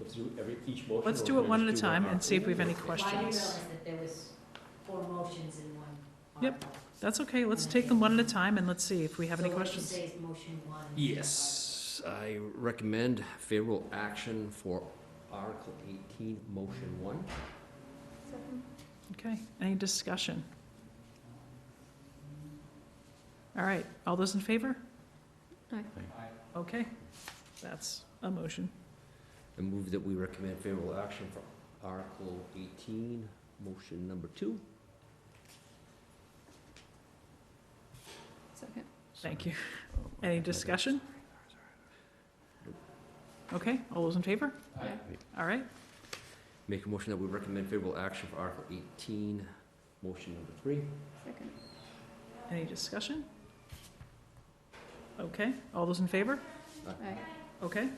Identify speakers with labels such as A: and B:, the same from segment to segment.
A: Let's do every, each motion.
B: Let's
A: or
B: do
A: we're
B: it one at
A: gonna
B: a
A: just do one
B: time and
A: article?
B: see if we have any
C: Well, I didn't realize
B: questions.
C: that there was four motions in one
B: Yep.
C: article.
B: That's okay, let's take them one at a time and let's see if we have any questions.
C: So what you say is motion one.
A: Yes, I recommend favorable action for Article eighteen, motion one.
B: Okay, any discussion? All right, all those in favor?
D: Aye.
B: Okay, that's a motion.
A: I move that we recommend favorable action for Article eighteen, motion number two.
D: Second.
B: Thank you. Any discussion? Okay, all those in favor?
D: Aye.
B: All right,
A: Make a motion that we recommend favorable action for Article eighteen, motion number three.
D: Second.
B: any discussion? Okay, all those in favor?
D: Aye.
B: Okay,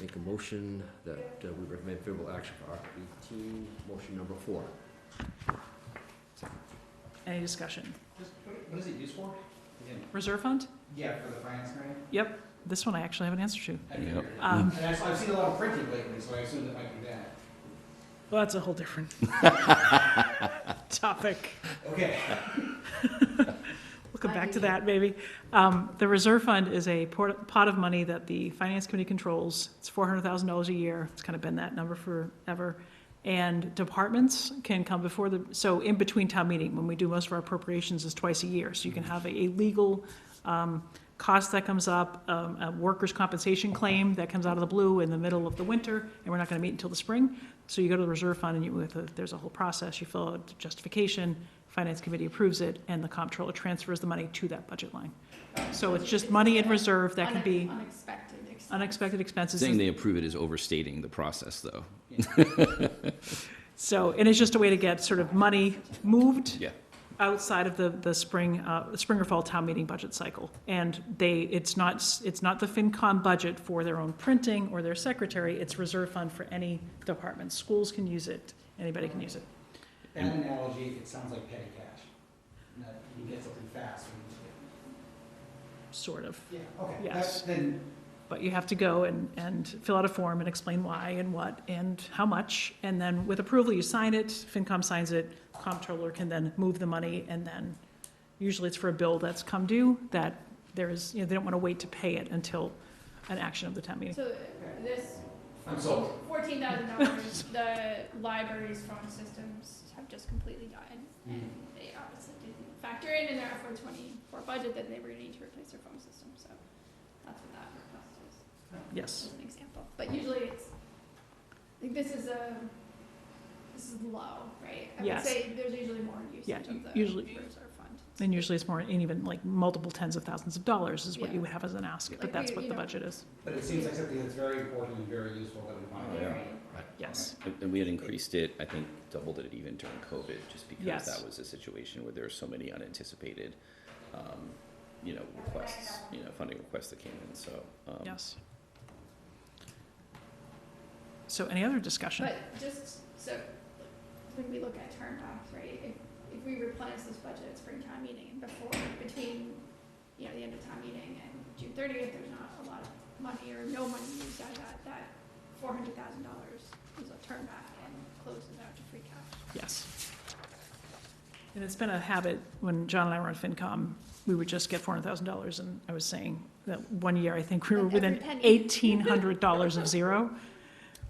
A: Make a motion that uh, we recommend favorable action for Article eighteen, motion number four.
B: any discussion?
E: What is it used for?
B: Reserve fund?
E: Yeah, for the finance grant.
B: Yep, this one I actually have an answer to.
E: I figured.
B: Um,
E: And I've, I've seen a lot of printing lately, so I assume it might be that.
B: Well, that's a whole different topic.
E: Okay.
B: We'll come back to that, maybe. Um, The reserve fund is a port- pot of money that the finance committee controls. It's four hundred thousand dollars a year. It's kind of been that number forever. And departments can come before the, so in between town meeting, when we do most of our appropriations is twice a year. So you can have a legal um, cost that comes up, um, a workers' compensation claim that comes out of the blue in the middle of the winter, and we're not gonna meet until the spring. So you go to the reserve fund and you, with a- there's a whole process. You fill out justification, finance committee approves it, and the comptroller transfers the money to that budget line. So it's just money in reserve that can be
D: Unexpected. expense.
B: unexpected expenses.
F: Saying they approve it is overstating the process, though.
B: So, and it's just a way to get sort of money moved
F: Yeah.
B: outside of the, the spring, uh, spring or fall town meeting budget cycle. And they, it's not, s- it's not the FinCom budget for their own printing or their secretary, it's reserve fund for any department. Schools can use it, anybody can use it.
E: That analogy, it sounds like petty cash. That you get something fast. when
B: sort of.
E: you- Yeah, okay. That-
B: Yes.
E: Then,
B: But you have to go and, and fill out a form and explain why and what and how much. And then with approval, you sign it, FinCom signs it, comptroller can then move the money. And then usually it's for a bill that's come due, that there is, you know, they don't want to wait to pay it until an action of the town meeting.
D: So this
E: I'm sold.
D: fourteen thousand dollars, the library's phone systems have just completely died. And they obviously didn't factor in in their F one twenty-four budget that they were gonna need to replace their phone system, so that's what that request is.
B: Yes,
D: as an example. But usually it's, I think this is a, this is low, right? I would
B: Yes.
D: say there's usually more
B: Yeah,
D: usage of the
B: usually-
D: reserve fund.
B: and usually it's more, and even like multiple tens of thousands of dollars is what you
D: Yeah.
B: would have as an ask, but
D: Like
B: that's
D: we-
B: what
D: you
B: the
D: know-
B: budget is.
E: but it seems like something that's very important and very useful that we want
B: Oh,
E: to.
D: Very-
B: Yes,
F: And- And we had increased it, I think doubled it even during COVID, just because
B: Yes.
F: that was a situation where there were so many unanticipated, um, you know, requests, you know, funding requests that came in, so. um,
B: yes. So any other discussion?
D: But just, so, when we look at term off, right, if, if we replenish this budget at spring town meeting and before, between, you know, the end of town meeting and June thirtieth, there's not a lot of money or no money used out of that, that four hundred thousand dollars is a turn back and closes out to free cash.
B: Yes. And it's been a habit, when John and I were on FinCom, we would just get four hundred thousand dollars, and I was saying that one year, I think we were
D: Like
B: within
D: every penny.
B: eighteen hundred dollars of zero.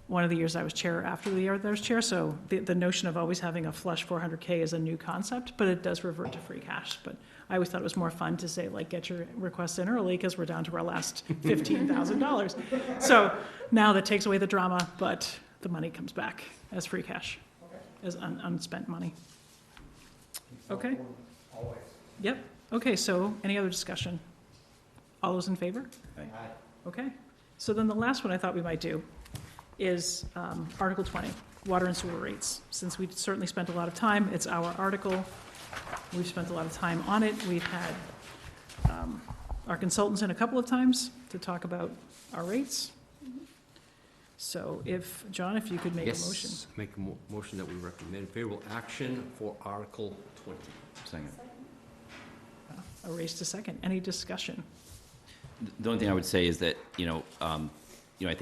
B: One of the years I was chair, after the year that I was chair, so the, the notion of always having a flush four hundred K is a new concept, but it does revert to free cash. But I always thought it was more fun to say, like, get your requests in early, because we're down to our last fifteen thousand dollars. So now that takes away the drama, but the money comes back as free cash, as un- unspent money. Okay.
E: Always.
B: Yep, okay, so any other discussion? All those in favor?
E: Aye.
B: Okay. So then the last one I thought we might do is um, Article 20, water and sewer rates. Since we certainly spent a lot of time, it's our article. We've spent a lot of time on it. We've had um, our consultants in a couple of times to talk about our rates. So if, John, if you could make a motion.
A: Yes, make a mo- motion that we recommend favorable action for Article twenty.
F: Second.
B: Uh, Erased a second. Any discussion?
F: The only thing I would say is that, you know, um,